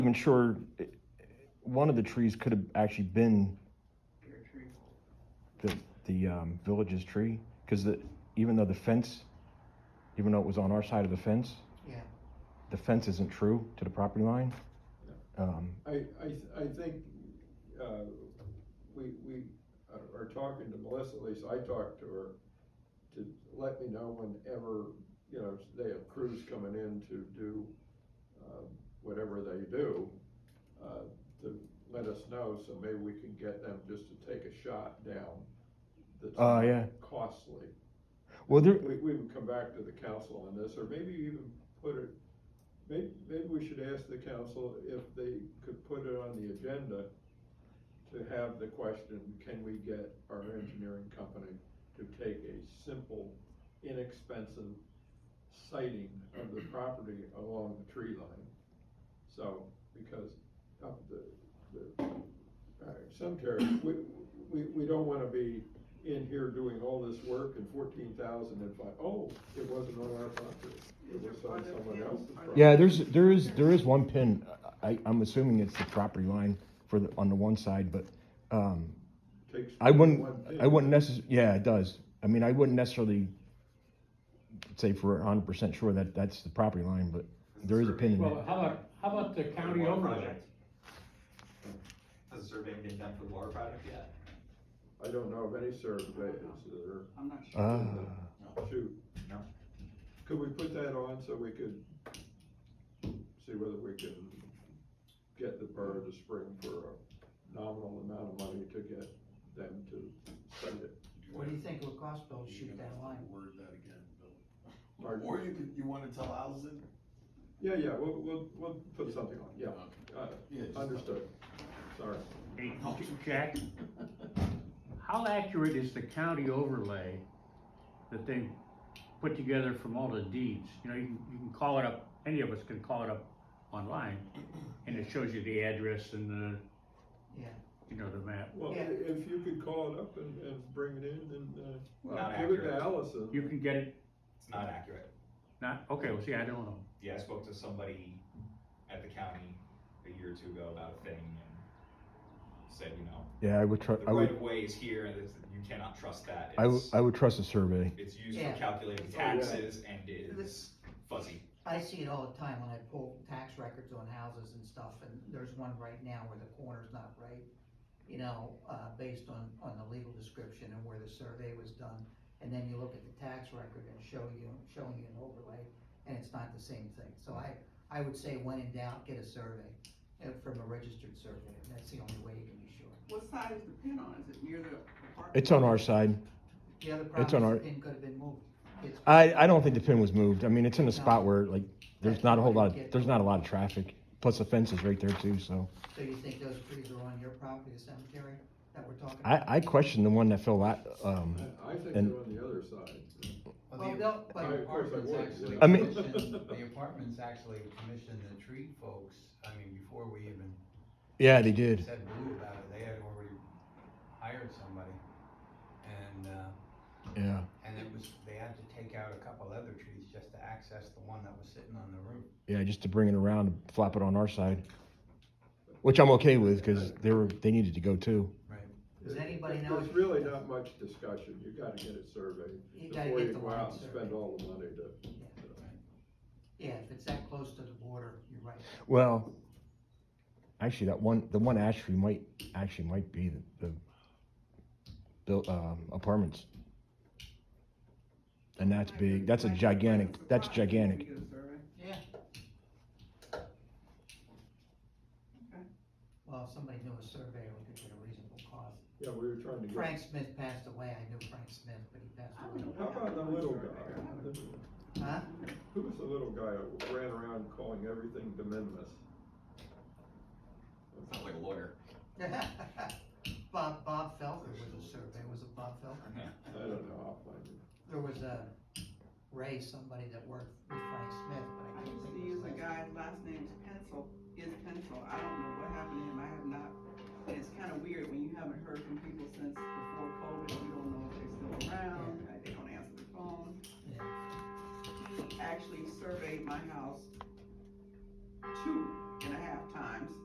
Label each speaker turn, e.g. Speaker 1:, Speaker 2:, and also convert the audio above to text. Speaker 1: even sure it- one of the trees could have actually been the the um, village's tree because the even though the fence, even though it was on our side of the fence,
Speaker 2: Yeah.
Speaker 1: the fence isn't true to the property line. Um,
Speaker 3: I, I, th- I think, uh, we, we are- are talking to Melissa, at least I talked to her, to let me know whenever, you know, they have crews coming in to do, uh, whatever they do, uh, to let us know, so maybe we can get them just to take a shot down. that's
Speaker 1: Oh, yeah.
Speaker 3: Costly.
Speaker 1: well, there,
Speaker 3: We, we would come back to the council on this, or maybe even put it, may, maybe we should ask the council if they could put it on the agenda to have the question, can we get our engineering company to take a simple, inexpensive sighting of the property along the tree line? So, because of the, the, uh, cemetery, we, we, we don't wanna be in here doing all this work and fourteen thousand and five, oh, it wasn't on our property. It was on someone else's property.
Speaker 1: yeah, there's there is there is one pin. I, I'm assuming it's the property line for the on the one side, but um,
Speaker 3: Takes
Speaker 1: I wouldn't,
Speaker 3: one thing.
Speaker 1: I wouldn't necess, yeah, it does. I mean, I wouldn't necessarily say for hundred percent sure that that's the property line, but there is a pin
Speaker 4: Mm-hmm.
Speaker 1: in it.
Speaker 5: Well, how about, how about the county
Speaker 4: Water
Speaker 5: overlay?
Speaker 4: project. Has a survey been done for the water project yet?
Speaker 3: I don't know of any surveys that
Speaker 2: I'm not sure.
Speaker 1: Ah,
Speaker 3: are, shoot.
Speaker 4: No.
Speaker 3: Could we put that on so we could see whether we can get the borough to spring for a nominal amount of money to get them to spend it?
Speaker 2: What do you think it would cost, Bill, to shoot that line?
Speaker 6: Word that again, Bill.
Speaker 3: Pardon?
Speaker 6: Or you could, you wanna tell Allison?
Speaker 3: Yeah, yeah, we'll, we'll, we'll put something on, yeah, uh,
Speaker 6: Yeah, just-
Speaker 3: understood, sorry.
Speaker 5: Hey, Jack, how accurate is the county overlay that they put together from all the deeds? You know, you can, you can call it up, any of us can call it up online, and it shows you the address and the,
Speaker 2: Yeah.
Speaker 5: you know, the map.
Speaker 3: Well, i-
Speaker 2: Yeah.
Speaker 3: if you could call it up and, and bring it in and, uh,
Speaker 4: Not
Speaker 3: give it to
Speaker 4: accurate.
Speaker 3: Allison.
Speaker 5: You can get it,
Speaker 4: It's not accurate.
Speaker 5: not, okay, well, see, I don't know.
Speaker 4: Yeah, I spoke to somebody at the county a year or two ago about a thing and said, you know,
Speaker 1: yeah, I would trust,
Speaker 4: the
Speaker 1: I
Speaker 4: right
Speaker 1: would,
Speaker 4: of way is here and it's- you cannot trust that.
Speaker 1: I would,
Speaker 4: It's-
Speaker 1: I would trust a survey.
Speaker 4: It's used
Speaker 2: Yeah.
Speaker 4: for calculating
Speaker 3: Oh, yeah.
Speaker 4: taxes and it is
Speaker 2: This-
Speaker 4: fuzzy.
Speaker 2: I see it all the time when I pull tax records on houses and stuff, and there's one right now where the corner's not right, you know, uh, based on, on the legal description and where the survey was done. And then you look at the tax record and show you, showing you an overlay, and it's not the same thing. So I, I would say when in doubt, get a survey, uh, from a registered survey, that's the only way you can be sure.
Speaker 7: What side is the pin on? Is it near the apartment?
Speaker 1: It's on our side.
Speaker 2: The other
Speaker 1: It's on
Speaker 2: problem
Speaker 1: our-
Speaker 2: is the pin could have been moved. It's-
Speaker 1: I, I don't think the pin was moved. I mean, it's in a spot where like, there's not a whole lot, of- there's not a lot of traffic. Plus the fence is right there too, so.
Speaker 2: So you think those trees are on your property, the cemetery that we're talking about?
Speaker 1: I, I questioned the one that fell out, um,
Speaker 3: I I think they're
Speaker 1: And-
Speaker 3: on the other side.
Speaker 2: Well, no, but-
Speaker 3: I-
Speaker 8: The
Speaker 3: of course I
Speaker 8: apartments
Speaker 3: would,
Speaker 8: actually.
Speaker 3: yeah.
Speaker 1: I mean-
Speaker 8: commissioned- The apartments actually commissioned the tree folks, I mean, before we even
Speaker 1: yeah, they did.
Speaker 8: said blue about it, they had already hired somebody. And, uh,
Speaker 1: Yeah.
Speaker 8: and it was, they had to take out a couple other trees just to access the one that was sitting on the roof.
Speaker 1: Yeah, just to bring it around and flop it on our side, which I'm okay with because they were they needed to go too.
Speaker 2: Does
Speaker 3: There-
Speaker 2: anybody
Speaker 3: there-
Speaker 2: know
Speaker 3: There's
Speaker 2: if-
Speaker 3: really not much discussion, you gotta get it surveyed
Speaker 2: You gotta
Speaker 3: before
Speaker 2: get
Speaker 3: you
Speaker 2: the
Speaker 3: go out
Speaker 2: line
Speaker 3: and
Speaker 2: survey.
Speaker 3: spend all the money to.
Speaker 2: Yeah, if it's that close to the border, you're right.
Speaker 1: Well, actually, that one the one ash tree might actually might be the, the built um, apartments, and that's big. That's a gigantic. That's gigantic.
Speaker 7: You get a survey?
Speaker 2: Yeah. Well, if somebody knew a surveyor, we could get a reasonable cost.
Speaker 3: Yeah, we were trying to get.
Speaker 2: Frank Smith passed away, I knew Frank Smith, but he passed
Speaker 7: I
Speaker 2: away.
Speaker 7: don't know.
Speaker 3: How about the little guy?
Speaker 2: Huh?
Speaker 3: Who was the little guy who ran around calling everything de minimis?
Speaker 4: Sounds like a lawyer.
Speaker 2: Bob, Bob Felker was a surveyor, was it Bob Felker?
Speaker 3: I don't know, I'll find it.
Speaker 2: There was a Ray, somebody that worked with Frank Smith, but
Speaker 7: I
Speaker 2: I can't
Speaker 7: used
Speaker 2: think
Speaker 7: to
Speaker 2: of his
Speaker 7: use
Speaker 2: last
Speaker 7: a
Speaker 2: name.
Speaker 7: guy's last name is Pencil, is Pencil. I don't know what happened to him. I have not. and It's kind of weird when you haven't heard from people since before COVID. You don't know if they're still around, uh, they don't answer the phone.
Speaker 2: Yeah.
Speaker 7: He actually surveyed my house two, and I had half times.